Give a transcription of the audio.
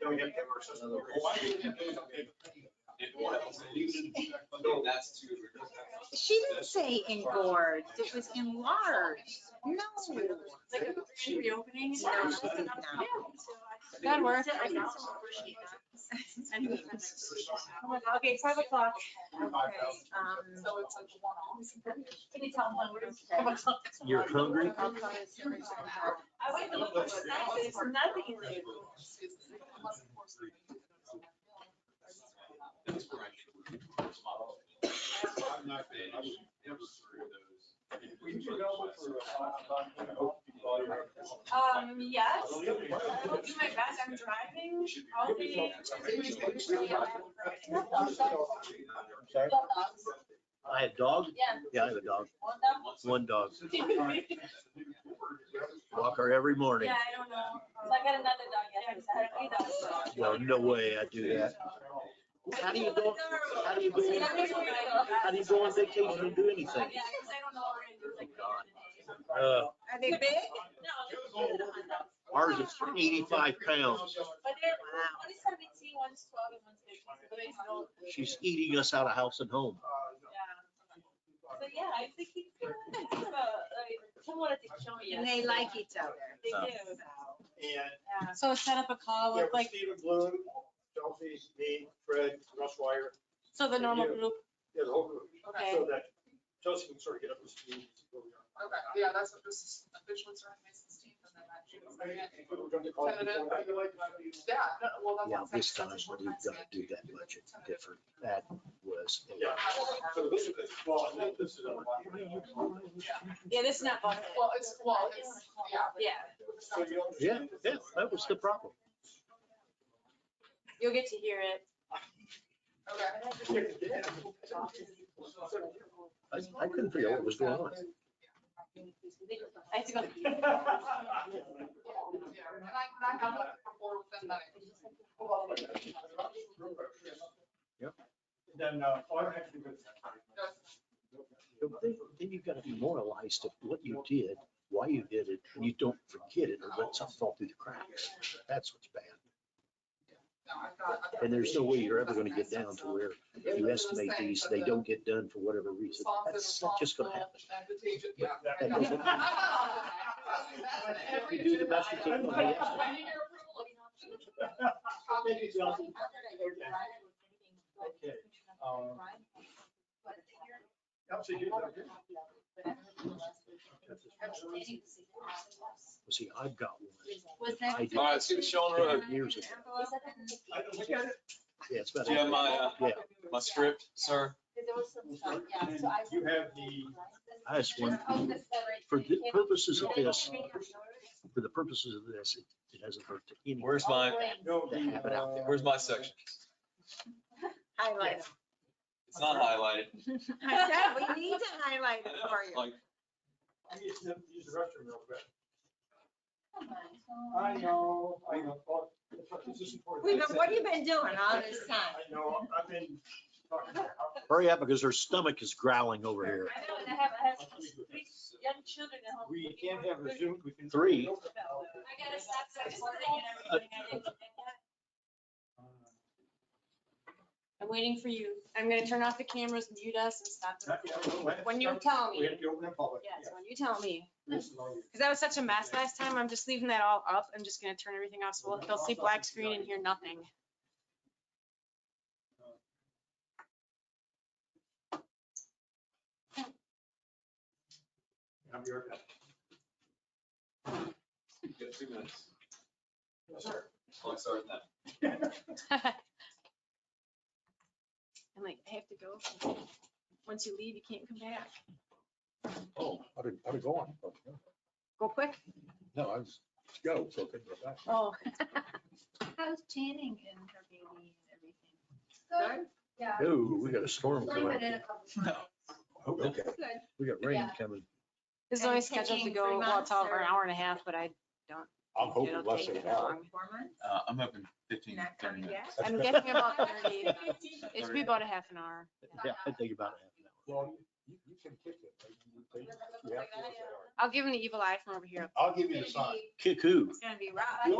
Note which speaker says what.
Speaker 1: Then we have to have our system. No,
Speaker 2: That's too.
Speaker 3: She didn't say engorged, it was enlarged. No. No,
Speaker 4: Reopening.
Speaker 3: she
Speaker 4: Yeah.
Speaker 3: did not.
Speaker 4: Good work.
Speaker 1: I can
Speaker 4: Okay, five o'clock.
Speaker 3: Okay, um,
Speaker 4: So it's like one-off.
Speaker 5: Can you tell when we're?
Speaker 6: You're hungry?
Speaker 5: I went to look for snacks, it's nothing in there.
Speaker 2: That's where I get the reverse model.
Speaker 1: I'm not, I was never through those. We can go for a five, five,
Speaker 5: Um, yes. I'll do my best, I'm driving, probably.
Speaker 6: Sorry? I have dogs? Yeah, I have a dog, one dog. Walk her every morning.
Speaker 5: Yeah, I don't know. So I got another dog yesterday.
Speaker 6: Well, no way I do that. How do you go, how do you go, how do you go on vacation and do
Speaker 5: Yeah,
Speaker 6: anything?
Speaker 5: 'cause I don't know what we're gonna do. like,
Speaker 6: Uh,
Speaker 3: Are they big?
Speaker 5: No, they're not.
Speaker 6: ours is eighty-five pounds.
Speaker 5: But they're, one is seventeen, one's twelve, and one's fifteen, so they know.
Speaker 6: She's eating us out of house and home.
Speaker 5: Yeah. So, yeah, I think he's kind of, kind of a, like, someone at the show, yes.
Speaker 3: And they like each other.
Speaker 5: They do.
Speaker 1: And
Speaker 5: Yeah.
Speaker 4: So set up a call uh, with like,
Speaker 1: Stephen Bloom, Chelsea, me, Fred, Russ Wire,
Speaker 4: so the normal group,
Speaker 1: yeah, the whole group.
Speaker 4: Okay.
Speaker 1: So that Chelsea can sort of get up to speed. where we are.
Speaker 7: Okay, yeah, that's what this is, officially starting May sixteenth and then that June second.
Speaker 1: If we were going to call it before that,
Speaker 7: Yeah, no, well, that's. what
Speaker 6: Yeah,
Speaker 7: I'm
Speaker 6: this
Speaker 7: saying,
Speaker 6: time
Speaker 7: that's what
Speaker 6: we didn't
Speaker 7: I'm saying.
Speaker 6: do that budget different. That was.
Speaker 1: Yeah. So this is, well, this is. a-
Speaker 4: yeah, this is not budget.
Speaker 7: Well, it's, well, it's, yeah.
Speaker 5: Yeah.
Speaker 1: So you don't-
Speaker 6: Yeah, yeah, that was the problem.
Speaker 4: You'll get to hear it.
Speaker 7: Okay.
Speaker 6: I, I couldn't figure out what was going on.
Speaker 4: I have to go.
Speaker 7: Yeah, and I, and I have that before with them, that
Speaker 1: Then, uh, oh, I'm actually good.
Speaker 6: Then then you've got to be moralized of what you did, why you did it, and you don't forget it or let something fall through the cracks. That's what's bad.
Speaker 7: no, I've got- I've got-
Speaker 6: And there's no way you're ever going to get down to where you estimate these, they don't get done for whatever reason. That's not just going to happen.
Speaker 7: Advantageous, yeah.
Speaker 1: That-
Speaker 7: I know.
Speaker 1: that-
Speaker 7: Every
Speaker 6: You do the best you
Speaker 7: agenda
Speaker 6: can
Speaker 1: on the
Speaker 7: item.
Speaker 1: estimate.
Speaker 7: I need your approval.
Speaker 1: Maybe Chelsea. Um, Chelsea, you did it.
Speaker 6: Well, See, I've got
Speaker 5: Was
Speaker 6: one. I did
Speaker 2: All right, see you, Sean Road.
Speaker 6: ten years ago.
Speaker 1: I don't- we got it.
Speaker 6: Yeah, it's about.
Speaker 2: Do you have my, uh,
Speaker 6: Yeah,
Speaker 2: My script, sir.
Speaker 1: You have the.
Speaker 6: I just want, for the purposes of this, for the purposes of this, it- it hasn't hurt to anyone.
Speaker 2: Where's my,
Speaker 1: No, the,
Speaker 6: They have it out
Speaker 1: uh,
Speaker 2: where's my section?
Speaker 3: Highlight
Speaker 2: It's not highlighted.
Speaker 3: them. I said, we need to highlight it for you.
Speaker 2: Like,
Speaker 1: I need to use the restroom real quick. I know, I know. Oh, this is important.
Speaker 3: We've been- What have you been doing all this time?
Speaker 1: I know, I've been talking.
Speaker 6: Hurry up because her stomach is growling over here.
Speaker 5: I know, and I have, I have three young children at home.
Speaker 1: We can't have a Zoom, we can.
Speaker 6: Three.
Speaker 5: I gotta stop sexting and everything. I didn't-
Speaker 8: Uh,
Speaker 4: I'm waiting for you. I'm gonna turn off the cameras, mute us and stop. the recording. When
Speaker 1: When
Speaker 4: you tell
Speaker 1: We
Speaker 4: me,
Speaker 1: have to open it public.
Speaker 4: yes, when you tell me.
Speaker 1: This is all you-
Speaker 4: Because that was such a mess last time. I'm just leaving that all up. I'm just gonna turn everything off. So we'll- they'll see black screen and hear nothing.
Speaker 8: Uh,
Speaker 1: I'm your.
Speaker 2: you got two minutes.
Speaker 1: Yes, sir.
Speaker 2: Clock started now.
Speaker 4: I'm like, I have to go. Once you leave, you can't come back.
Speaker 8: Oh, how did, how did it go on?
Speaker 4: Go quick.
Speaker 8: No, I was, go, so I couldn't go back.
Speaker 4: Oh.
Speaker 9: How's Channing and her baby and everything?
Speaker 3: Good.
Speaker 9: Yeah.
Speaker 6: Ooh, we got a storm
Speaker 9: I've
Speaker 6: coming.
Speaker 9: been in a couple times.
Speaker 8: Oh, okay.
Speaker 9: Good.
Speaker 6: We got rain coming.
Speaker 4: This is only
Speaker 3: And
Speaker 4: scheduled to
Speaker 3: taking
Speaker 4: go,
Speaker 3: three
Speaker 4: well, it's all
Speaker 3: months
Speaker 4: for an
Speaker 3: or-
Speaker 4: hour and a half, but I,
Speaker 8: I'm hoping
Speaker 4: it'll
Speaker 8: less
Speaker 4: take
Speaker 8: than an
Speaker 4: that
Speaker 8: hour.
Speaker 4: long.
Speaker 9: Four months?
Speaker 2: Uh, I'm hoping 15,
Speaker 3: Not
Speaker 2: 30
Speaker 3: coming
Speaker 2: minutes.
Speaker 3: yet?
Speaker 4: I'm guessing about thirty.
Speaker 5: I
Speaker 4: It should be about a half an hour.
Speaker 6: Yeah, I think about it.
Speaker 8: Well, you, you can kick it. but you- you- you have to look at it.
Speaker 4: I'll give him the evil eye from over here.
Speaker 8: I'll give you the
Speaker 9: It's
Speaker 8: sign.
Speaker 9: gonna be-
Speaker 6: Cuckoo.
Speaker 9: it's gonna be rough.